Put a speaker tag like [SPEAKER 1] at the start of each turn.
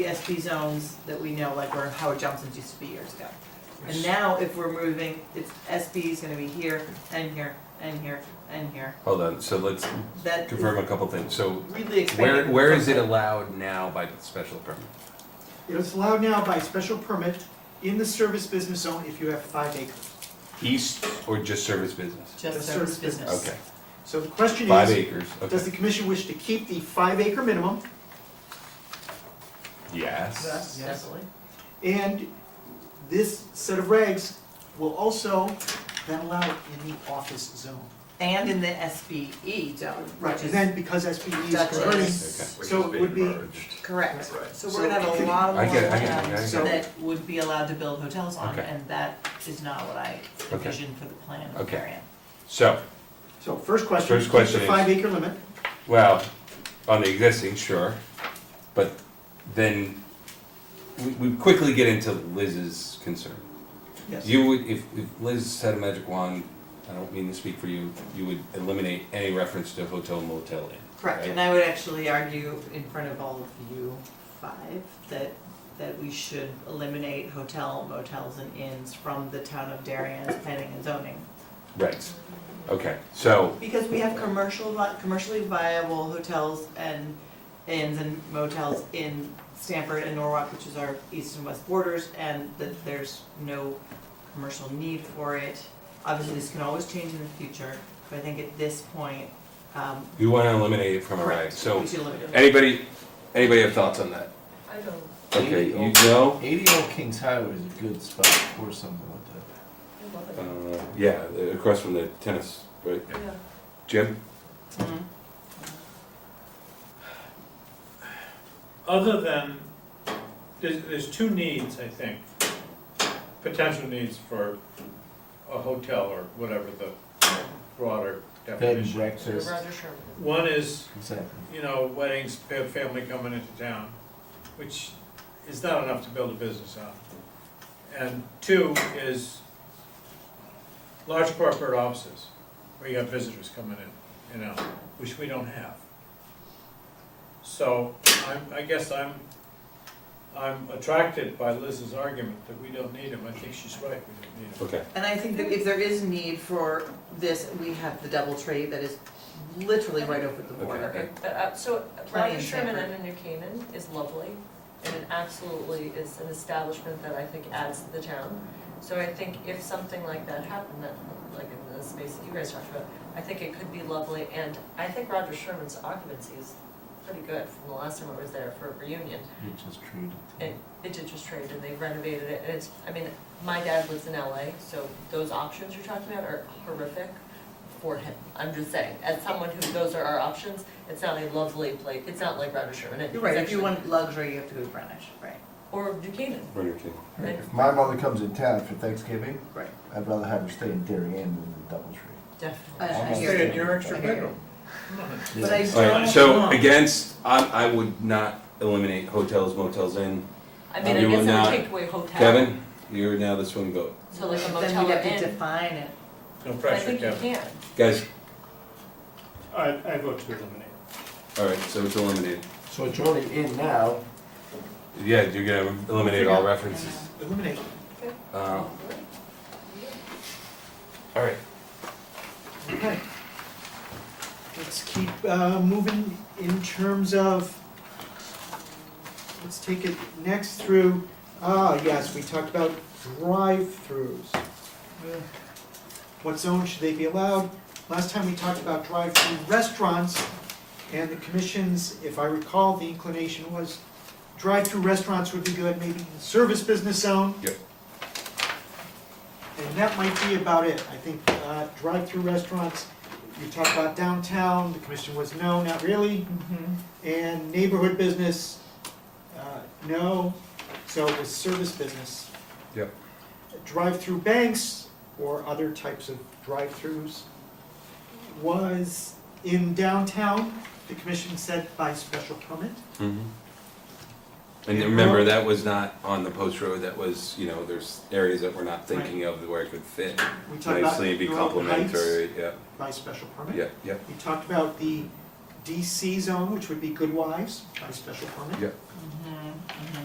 [SPEAKER 1] ESP zones that we know, like where Howard Johnson's used to be years ago. And now if we're moving, it's SB is gonna be here and here and here and here.
[SPEAKER 2] Hold on, so let's
[SPEAKER 1] That is
[SPEAKER 2] confirm a couple things. So
[SPEAKER 1] really
[SPEAKER 2] where,
[SPEAKER 1] expanding.
[SPEAKER 2] where is it allowed now by the special permit?
[SPEAKER 3] It's allowed now by special permit in the service business zone if you have five acres.
[SPEAKER 2] East or just service business?
[SPEAKER 1] Just
[SPEAKER 3] the
[SPEAKER 1] service
[SPEAKER 3] service business.
[SPEAKER 1] business.
[SPEAKER 2] Okay,
[SPEAKER 3] So the question
[SPEAKER 2] five
[SPEAKER 3] is,
[SPEAKER 2] acres,
[SPEAKER 3] does the
[SPEAKER 2] okay.
[SPEAKER 3] commission wish to keep the five acre minimum?
[SPEAKER 2] Yes.
[SPEAKER 3] Yes.
[SPEAKER 1] Definitely.
[SPEAKER 3] And this set of regs will also then allow it in the office zone.
[SPEAKER 1] And in the SBE zone,
[SPEAKER 3] Right,
[SPEAKER 1] which
[SPEAKER 3] and
[SPEAKER 1] is
[SPEAKER 3] then because SPE is
[SPEAKER 1] Dutchess.
[SPEAKER 3] converting,
[SPEAKER 2] Okay.
[SPEAKER 3] so it would be.
[SPEAKER 1] correct.
[SPEAKER 3] Right.
[SPEAKER 1] So we're gonna have a lot of
[SPEAKER 2] I get it, I
[SPEAKER 1] land
[SPEAKER 2] get it, I get it.
[SPEAKER 1] that would be allowed to build hotels on,
[SPEAKER 2] Okay.
[SPEAKER 1] and that is not what I envisioned for the plan of
[SPEAKER 2] Okay.
[SPEAKER 1] Marion.
[SPEAKER 2] So,
[SPEAKER 3] So first question,
[SPEAKER 2] First
[SPEAKER 3] keep
[SPEAKER 2] question
[SPEAKER 3] the
[SPEAKER 2] is-
[SPEAKER 3] five acre limit,
[SPEAKER 2] well, on the existing, sure, but then we, we quickly get into Liz's concern.
[SPEAKER 3] yes.
[SPEAKER 2] You would, if, if Liz had a magic wand, I don't mean to speak for you, you would eliminate any reference to hotel motel inn.
[SPEAKER 1] Correct,
[SPEAKER 2] right?
[SPEAKER 1] and I would actually argue in front of all of you five that, that we should eliminate hotel, motels and inns from the town of Darien's planning and zoning.
[SPEAKER 2] Right, okay, so,
[SPEAKER 1] Because we have commercial, vi- commercially viable hotels and inns and motels in Stamford and Norwalk, which is our east and west borders, and that there's no commercial need for it. Obviously, this can always change in the future, but I think at this point, um,
[SPEAKER 2] you wanna eliminate it from our regs,
[SPEAKER 1] correct,
[SPEAKER 2] so
[SPEAKER 1] we should eliminate it.
[SPEAKER 2] Anybody, anybody have thoughts on that?
[SPEAKER 4] I don't.
[SPEAKER 2] Okay,
[SPEAKER 5] Maybe
[SPEAKER 2] you
[SPEAKER 5] I'll-
[SPEAKER 2] know,
[SPEAKER 5] 80 Old Kings Highway is a good spot for something like that.
[SPEAKER 4] I love it.
[SPEAKER 2] uh, yeah, across from the tennis, right,
[SPEAKER 4] Yeah.
[SPEAKER 2] Jim?
[SPEAKER 1] Mhm.
[SPEAKER 6] other than, there's, there's two needs, I think, potential needs for a hotel or whatever the broader
[SPEAKER 5] Bed and
[SPEAKER 6] definition.
[SPEAKER 5] breakfast,
[SPEAKER 4] Roger Sherman.
[SPEAKER 6] One is,
[SPEAKER 5] exactly.
[SPEAKER 6] you know, weddings, fa- family coming into town, which is not enough to build a business on. And two is large corporate offices, where you have visitors coming in, you know, which we don't have. So I'm, I guess I'm, I'm attracted by Liz's argument that we don't need them. I think she's right, we don't need them.
[SPEAKER 2] Okay.
[SPEAKER 1] And I think that if there is need for this, we have the double tree that is literally right over the border.
[SPEAKER 2] Okay.
[SPEAKER 4] But, uh, so
[SPEAKER 1] Plenty
[SPEAKER 4] Roger
[SPEAKER 1] of
[SPEAKER 4] Sherman
[SPEAKER 1] paper.
[SPEAKER 4] under New Canaan is lovely, and it absolutely is an establishment that I think adds to the town. So I think if something like that happened, that, like in the space that you guys talked about, I think it could be lovely, and I think Roger Sherman's occupancy is pretty good from the last time I was there for a reunion.
[SPEAKER 5] You just treat
[SPEAKER 4] And
[SPEAKER 5] it.
[SPEAKER 4] it did just trade and they renovated it, and it's, I mean, my dad lives in LA, so those options you're talking about are horrific for him. I'm just saying, as someone who, those are our options, it's not a lovely place, it's not like Roger Sherman.
[SPEAKER 1] You're right,
[SPEAKER 4] It's
[SPEAKER 1] if you
[SPEAKER 4] actually-
[SPEAKER 1] want luxury, you have to go to Greenwich, right?
[SPEAKER 4] Or Duquesne,
[SPEAKER 5] Hey, If my mother comes in town for Thanksgiving,
[SPEAKER 1] Right.
[SPEAKER 5] I'd rather have her stay in Darien than in Doubletree.
[SPEAKER 4] definitely.
[SPEAKER 1] I- I
[SPEAKER 5] Almost
[SPEAKER 1] hear
[SPEAKER 6] Stay in
[SPEAKER 1] you.
[SPEAKER 6] your extra
[SPEAKER 1] I hear you.
[SPEAKER 6] bedroom.
[SPEAKER 1] But I
[SPEAKER 5] Yeah.
[SPEAKER 2] All
[SPEAKER 1] don't
[SPEAKER 2] right, so
[SPEAKER 1] want-
[SPEAKER 2] against, I, I would not eliminate hotels, motels, inn.
[SPEAKER 4] I mean,
[SPEAKER 2] You
[SPEAKER 4] I
[SPEAKER 2] will
[SPEAKER 4] guess I
[SPEAKER 2] not-
[SPEAKER 4] would take away hotel.
[SPEAKER 2] Kevin, you're now the swing vote.
[SPEAKER 4] So like a
[SPEAKER 1] Then
[SPEAKER 4] motel
[SPEAKER 1] we
[SPEAKER 4] or
[SPEAKER 1] have to
[SPEAKER 4] inn,
[SPEAKER 1] define it.
[SPEAKER 6] No
[SPEAKER 4] but I
[SPEAKER 6] pressure,
[SPEAKER 4] think you
[SPEAKER 6] Kevin.
[SPEAKER 4] can.
[SPEAKER 2] Guys,
[SPEAKER 6] I, I vote to eliminate.
[SPEAKER 2] all right, so it's eliminated.
[SPEAKER 5] So it's only in now,
[SPEAKER 2] Yeah, you're gonna eliminate all references.
[SPEAKER 3] Eliminate.
[SPEAKER 2] Uh, all right,
[SPEAKER 3] Okay. Let's keep uh, moving in terms of, let's take it next through, ah, yes, we talked about drive-throughs. What zone should they be allowed? Last time we talked about drive-through restaurants, and the commission's, if I recall, the inclination was drive-through restaurants would be good, maybe in the service business zone.
[SPEAKER 2] Yep.
[SPEAKER 3] And that might be about it. I think uh, drive-through restaurants, you talked about downtown, the commission was no, not really. And neighborhood business, uh, no, so it was service business.
[SPEAKER 2] Yep.
[SPEAKER 3] Drive-through banks or other types of drive-throughs was in downtown, the commission said by special permit.
[SPEAKER 2] Mhm. And then remember, that was not on the post road, that was, you know, there's areas that we're not thinking of where it could fit
[SPEAKER 3] We talked about
[SPEAKER 2] nicely, be
[SPEAKER 3] Norwood Heights
[SPEAKER 2] complementary, yeah,
[SPEAKER 3] By special permit.
[SPEAKER 2] yeah, yeah.
[SPEAKER 3] We talked about the DC zone, which would be Good Wives by special permit.
[SPEAKER 2] Yeah.
[SPEAKER 1] Mhm. Mhm.